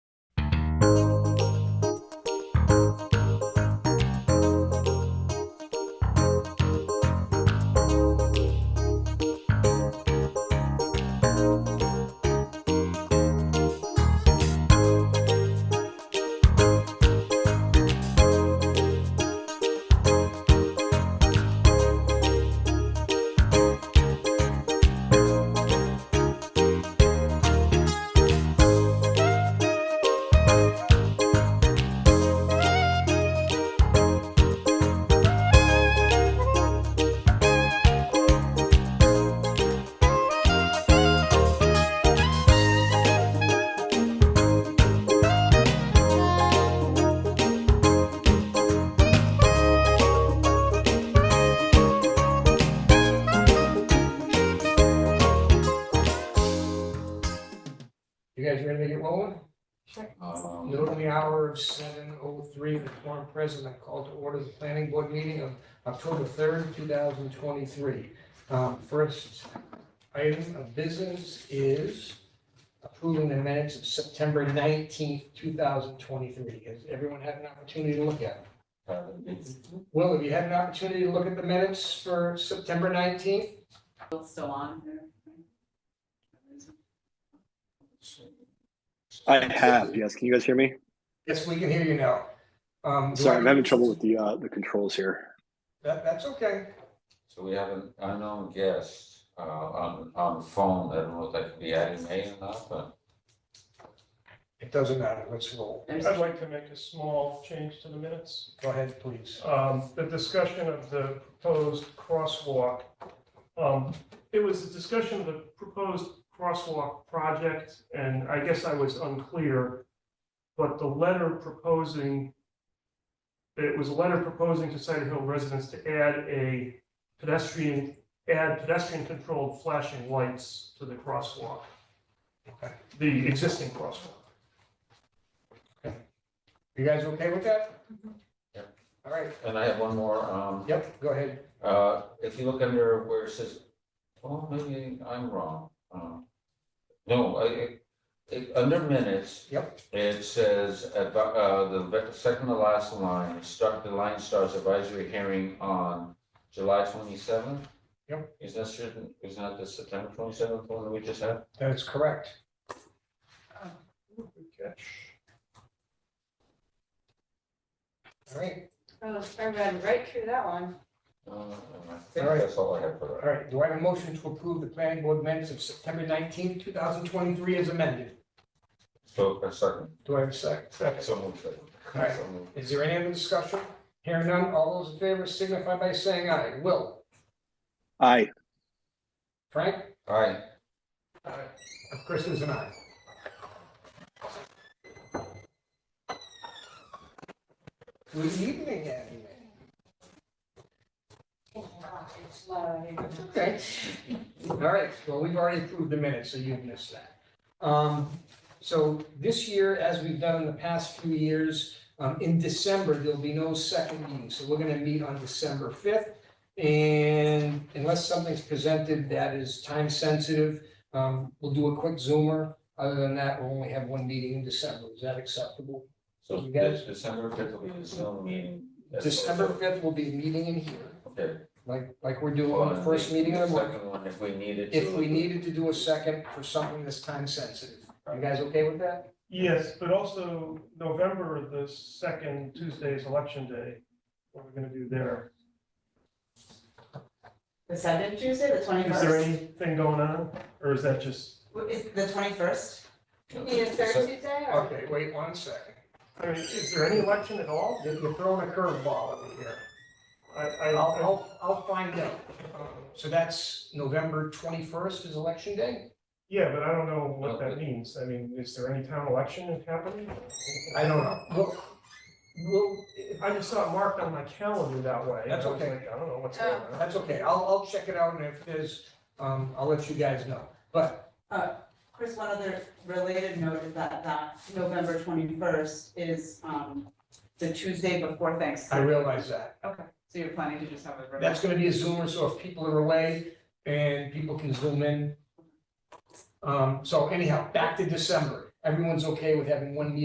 Um, Note on the hour of seven oh three, the quorum present, I call to order the planning board meeting of October third, two thousand twenty-three. Um, first item of business is approving the minutes of September nineteenth, two thousand twenty-three. Has everyone had an opportunity to look at uh, them? Will, have you had an opportunity to look at the minutes for September nineteenth? Still still on there? I have, yes. Can you guys hear me? Yes, we can hear you now. Um, do Sorry, I- I'm having trouble with the uh, the controls here. That, that's okay. So we have an unknown guest, uh, on, on the phone, I don't know if that could be Adam May or not, but It doesn't matter. Let's roll. There's- I'd like to make a small change to the minutes. Go ahead, please. Um, The discussion of the proposed crosswalk. um, It was a discussion of the proposed crosswalk project, and I guess I was unclear. But the letter proposing, it was a letter proposing to Cider Hill residents to add a pedestrian, add pedestrian-controlled flashing lights to the crosswalk. Okay. The existing crosswalk. You guys okay with that? Yep. All right. and I have one more, um, Yep, go ahead. uh, if you look under where it says, oh, maybe I'm wrong. um, No, I, it- it, under minutes. Yep. It says, advi- uh, the ve- second to last line, start, the line starts advisory hearing on July twenty-seventh? Yep. Is that certain, is that the September twenty-seventh one that we just had? That is correct. All right, Oh, I read right through that one. Uh, I think All right. that's all I have for that. all right. Do I have a motion to approve the planning board minutes of September nineteenth, two thousand twenty-three as amended? So, a second. Do I have a second? So moved, second. Alright. So moved. Is there any other discussion? Hearing none, all those in favor signify by saying aye. Will, Aye. Frank, Aye, Chris is an aye. Good evening, Andy. It's low. That's okay. All right, well, we've already approved the minutes, so you've missed that. Um, so this year, as we've done in the past few years, um, in December, there'll be no second meeting, so we're gonna meet on December fifth. And unless something's presented that is time sensitive, um, we'll do a quick zoomer. Other than that, we'll only have one meeting in December. Is that acceptable? so You guys- this December fifth will be the Zoom meeting. That's December also- fifth will be a meeting in here, Okay. like, like we're doing on the first meeting of the month. Second one, if we needed to. if we needed to do a second for something that's time sensitive. You guys okay with that? Yes, but also November, the second Tuesday is election day. What are we gonna do there? The second Tuesday, the Is there twenty-first? anything going on, or is that just, Is the twenty-first? Need a third Tuesday or? Okay, wait one second. I mean, is there any election at all? You're you're throwing a curveball over here. I, I'll, I, I'll, I'll find out. Um, So that's November twenty-first is election day? yeah, but I don't know what that means. I mean, is there any town election happening? I don't know. We'll, we'll, I just saw it marked on my calendar that way. and I That's was okay. like, I don't know what's going on. that's okay. I'll, I'll check it out and if there's, um, I'll let you guys know. But, Chris, one other related note is that that November twenty-first is, um, the Tuesday before I Thanksgiving. realize that. Okay, so you're planning to just have a. That's gonna be a Zoomer, so if people are away and people can zoom in. Um, so anyhow, back to December. Everyone's okay with having one meeting